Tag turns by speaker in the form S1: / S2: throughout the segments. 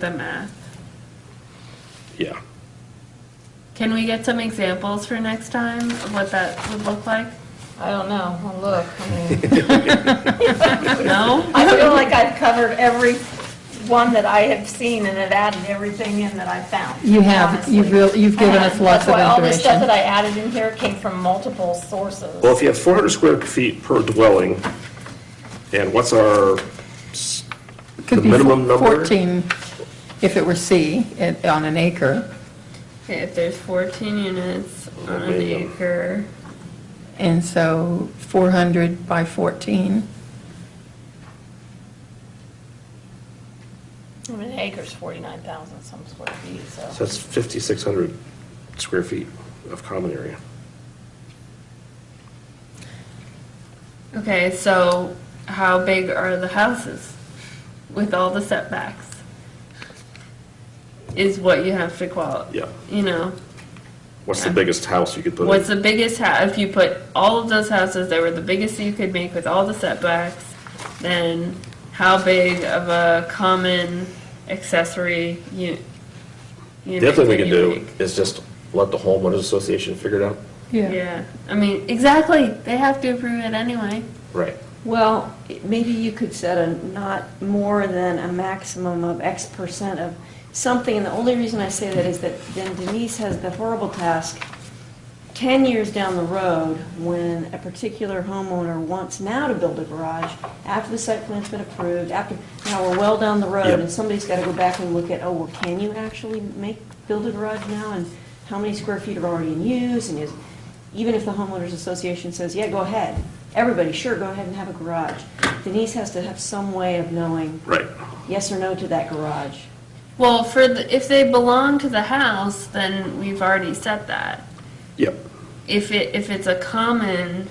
S1: the math.
S2: Yeah.
S1: Can we get some examples for next time of what that would look like?
S3: I don't know, I'll look. I mean,
S1: No?
S3: I feel like I've covered every one that I have seen and have added everything in that I've found.
S4: You have,
S3: honestly.
S4: you've real, you've given
S3: And
S4: us lots
S3: That's
S4: of
S3: why all the stuff that
S4: information.
S3: I added in here came from multiple sources.
S2: Well, if you have 400 square feet per dwelling, and what's our, s-
S4: Could
S2: the
S4: be
S2: minimum number?
S4: 14, if it were C, it- on an acre,
S1: Okay, if there's 14 units on an
S2: Minimum.
S1: acre,
S4: and so 400 by 14.
S3: I mean, an acre's 49,000 some square feet,
S2: so
S3: so.
S2: that's 5,600 square feet of common area.
S1: okay, so how big are the houses with all the setbacks? Is what you have to qual,
S2: Yeah.
S1: you know?
S2: What's the biggest house you could put
S1: What's
S2: in?
S1: the biggest house? If you put all of those houses that were the biggest you could make with all the setbacks, then how big of a common accessory you? unit
S2: The other thing we can
S1: can you
S2: do
S1: make?
S2: is just let the homeowners association figure it out.
S1: Yeah, I mean, exactly. They have to approve it anyway.
S2: Right.
S5: Well, it- maybe you could set a not more than a maximum of X percent of something, and the only reason I say that is that then Denise has the horrible task, 10 years down the road, when a particular homeowner wants now to build a garage, after the site plan's been approved, after, now we're well down the road,
S2: Yep.
S5: and somebody's got to go back and look at, oh, well, can you actually make, build a garage now, and how many square feet are already in use, and is, even if the homeowners association says, yeah, go ahead, everybody, sure, go ahead and have a garage, Denise has to have some way of knowing
S2: Right.
S5: yes or no to that garage.
S1: Well, for the, if they belong to the house, then we've already set that.
S2: Yep.
S1: If it, if it's a common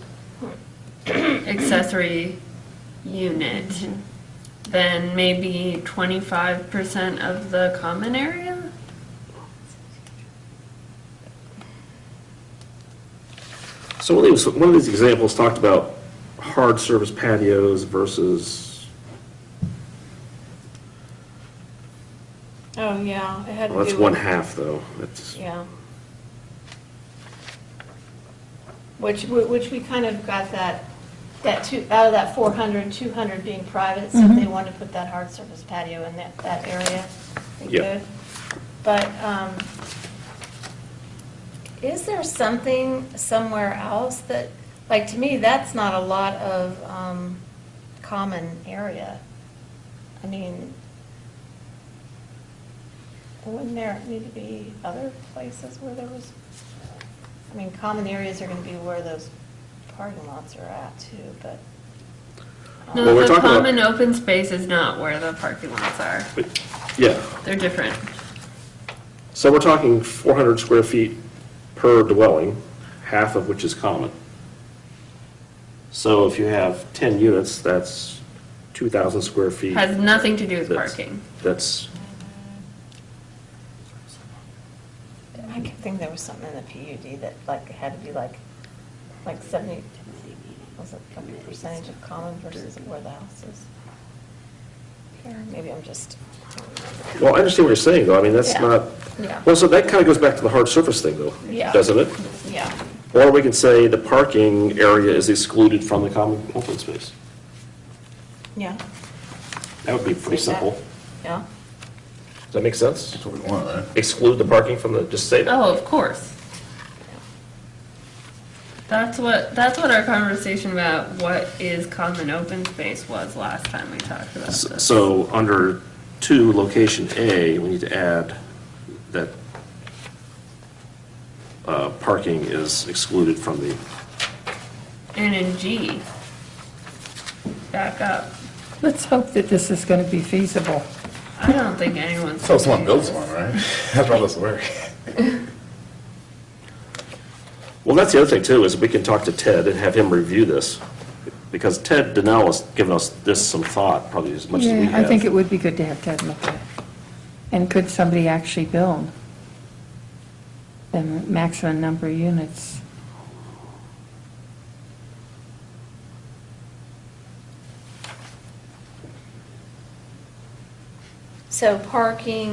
S1: accessory unit, then maybe twenty-five percent of the common area?
S2: So one of these, one of these examples talked about hard surface patios versus,
S3: Oh, yeah, it had to do
S2: well, that's
S3: with-
S2: one half though. That's,
S3: Yeah. Which, which we kind of got that, that two, out of that 400, 200 being private, so if they wanted to put that hard surface patio in that, that area, they
S2: Yeah.
S3: could. But um, is there something somewhere else that, like, to me, that's not a lot of um, common area. I mean, wouldn't there need to be other places where there was, I mean, common areas are gonna be where those parking lots are at too, but. um,
S2: Well,
S1: No,
S2: we're
S1: the
S2: talking about-
S1: common open space is not where the parking lots are.
S2: but, yeah.
S1: They're different.
S2: So we're talking 400 square feet per dwelling, half of which is common. So if you have 10 units, that's 2,000 square feet.
S1: Has nothing to do with
S2: That's-
S1: parking.
S2: That's,
S3: I could think there was something in the PUD that like had to be like, like seventy, was it like a percentage of common versus where the house is? Or Maybe I'm just,
S2: well, I understand what you're saying, though, I mean, that's
S3: Yeah.
S2: not,
S3: Yeah.
S2: well, so that kind of goes back to the hard surface thing, though,
S3: Yeah.
S2: doesn't it?
S3: yeah,
S2: Or we can say the parking area is excluded from the common open space.
S3: yeah.
S2: That would be pretty
S3: Say that.
S2: simple.
S3: Yeah,
S2: Does that make sense?
S6: That's what we want, right?
S2: Exclude the parking from the, just say that.
S1: Oh, of course. That's what, that's what our conversation about what is common open space was last time we talked about
S2: S-
S1: this.
S2: So, under two, location A, we need to add that uh, parking is excluded from the,
S1: And in G, back up,
S4: Let's hope that this is going to be feasible.
S1: I don't think anyone's.
S6: So someone builds one, right? That's all this work.
S2: well, that's the other thing too, is we can talk to Ted and have him review this, because Ted Donnell has given us this some thought, probably as much as we
S4: Yeah,
S2: have.
S4: I think it would be good to have Ted look at it. And could somebody actually build the maximum number of units?
S7: So parking